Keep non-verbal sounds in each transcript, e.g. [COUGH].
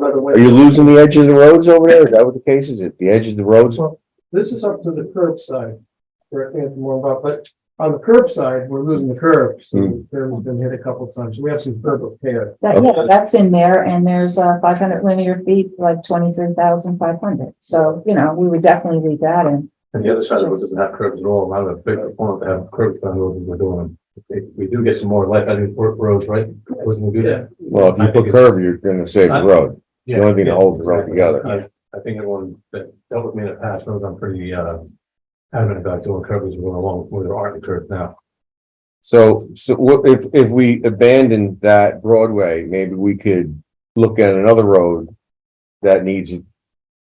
by the way. Are you losing the edge of the roads over there? Is that what the case is? If the edge of the roads? This is up to the curb side, correct me if I'm wrong, Bob, but on the curb side, we're losing the curb. Hmm. So there has been hit a couple of times. We have some curb repair. That, yeah, Okay. that's in there and there's uh five hundred linear feet, like twenty-three thousand five hundred. So, you know, we would definitely leave that in. And the other side of it doesn't have curbs at all, I'm a big proponent to have curbs on roads we're doing. If we do get some more life, I think, work roads, right? Wouldn't we do that? Well, if you put curb, you're gonna save the road. The only thing that holds the road together. I- I think everyone that dealt with me in the past knows I'm pretty, uh, adamant about doing curbs as we go along, where there aren't curbs now. So, so what, if, if we abandoned that Broadway, maybe we could look at another road that needs it.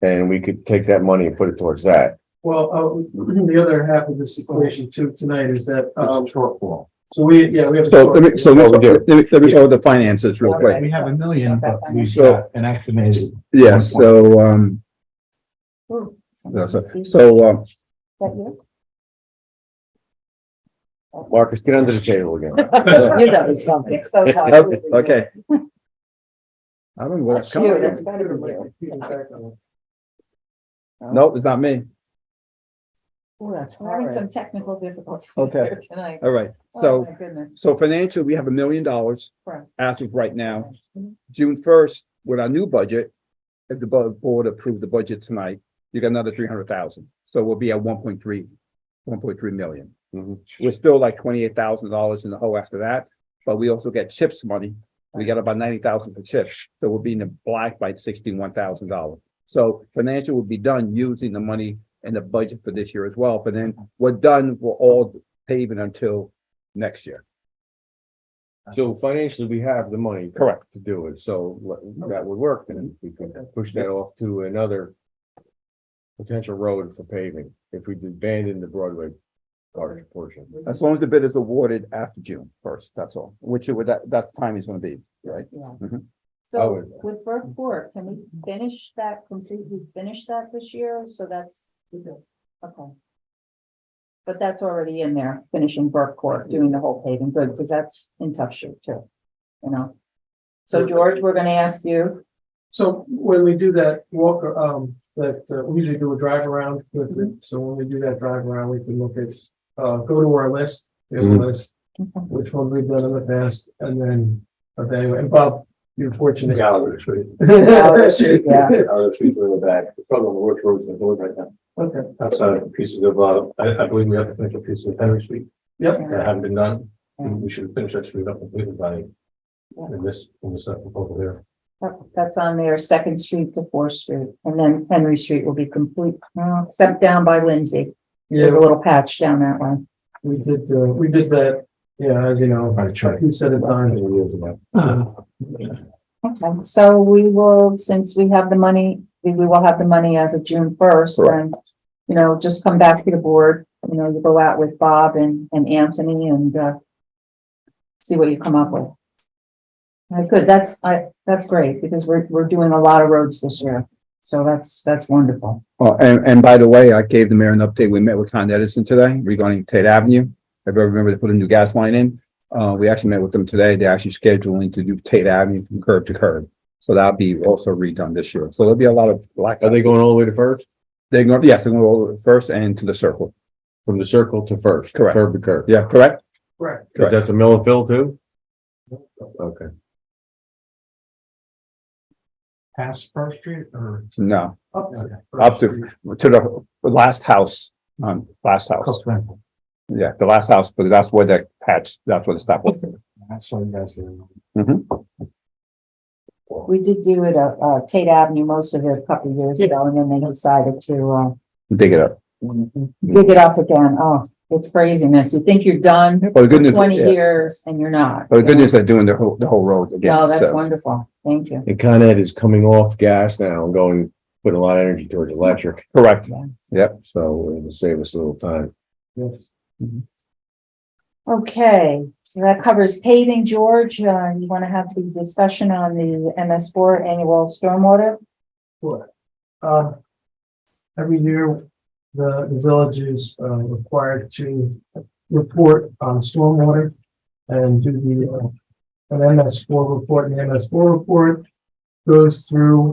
And we could take that money and put it towards that. Well, uh, [CLEARS THROAT] the other half of this equation too tonight is that, um, It's a shortfall. so we, yeah, we have. a So let me, so Oh, we let me, do. let me, let me go with the finances real quick. We have a million, but we got an estimated. Yeah, so, um, no, so, so, um, Marcus, get under the table again. You know it's coming. It's so okay, hard. okay. I don't know where that's That's coming you, from. that's better than you. Nope, it's not me. Oh, that's We're having horrid. some technical difficulties Okay. here tonight. All right, Oh, so, my goodness. so financially, we have a million dollars Correct. as of right now. June first, with our new budget, if the bu- board approved the budget tonight, you got another three hundred thousand. So we'll be at one point three, one point three million. Mhm. We're still like twenty-eight thousand dollars in the hole after that, but we also get chips money. We got about ninety thousand for chips, so we'll be in the black by sixty-one thousand dollars. So financial will be done using the money in the budget for this year as well, but then we're done, we're all paving until next year. So financially, we have the money. Correct. To do it, so let- that would work, and we could push that off to another. Potential road for paving, if we abandon the Broadway garden portion. As long as the bid is awarded after June first, that's all, which it would, that, that's time is gonna be, right? I So would- with Burke Court, can we finish that, completely finish that this year? So that's, okay. But that's already in there, finishing Burke Court, doing the whole paving, good, because that's in tough shape too, you know? So George, we're gonna ask you, So when we do that walk, um, that, uh, we usually do a drive around with Mm-hmm. it. So when we do that drive around, we can look at, uh, go to our list, we have a Mm-hmm. Mhm. list, which one we've done in the past, and then evaluate. And Bob, you're fortunate. [LAUGHS] Gallagher Street. Gallagher Street, yeah. Gallagher Street's in the back, It's probably one of the worst roads in the world right now. Okay, Outside of pieces of, uh, I, I believe we have to finish a piece of Henry Street. yep. that haven't been done, Yeah. we should finish that street up completely by Yeah. in this, in this uh, proposal here. that- that's on there, Second Street to Fourth Street, and then Henry Street will be complete, uh, except down by Lindsay. There's Yeah, a little patch down that way. we did, uh, we did that, yeah, as you know, By Charlie. he said it on. uh, Okay, so we will, since we have the money, we we will have the money as of June first and, you know, just come back to the board, you know, you go out with Bob and, and Anthony and, uh, see what you come up with. Uh, good, that's, I, that's great because we're, we're doing a lot of roads this year. So that's, that's wonderful. Oh, and, and by the way, I gave the mayor an update. We met with Con Edison today regarding Tate Avenue. If I remember, they put a new gas line in. Uh, we actually met with them today. They're actually scheduling to do Tate Avenue from curb to curb. So that'll be also redone this year. So there'll be a lot of black, Are they going all the way to first, they're going, yes, they're going over first and to the circle. from the circle to first? Correct. Curb to curb, Yeah, correct? Right. because that's a mill and fill too? Okay, Past First Street or? No, Up to- Up to- to the last house, um, last house. Yeah, the last house, but that's where that patch, that's where the stop was. That's what you guys do. We did do it, uh, uh, Tate Avenue most of it a couple of years ago and then they decided to, uh, Dig it up. dig it up again. Oh, it's craziness. You think you're done Well, the good news. twenty yeah. years and you're not. But the good news, they're doing the whole, the whole road again. Oh, that's so- wonderful. Thank you. and Con Ed is coming off gas now and going, put a lot of energy towards electric, Correct. Yes. Yep. so it'll save us a little time. Yes. Okay, so that covers paving. George, uh, you want to have the discussion on the MS four annual stormwater? Sure. Uh, every year, the, the village is, uh, required to report on stormwater and do the, uh, an MS four report, and the MS four report goes through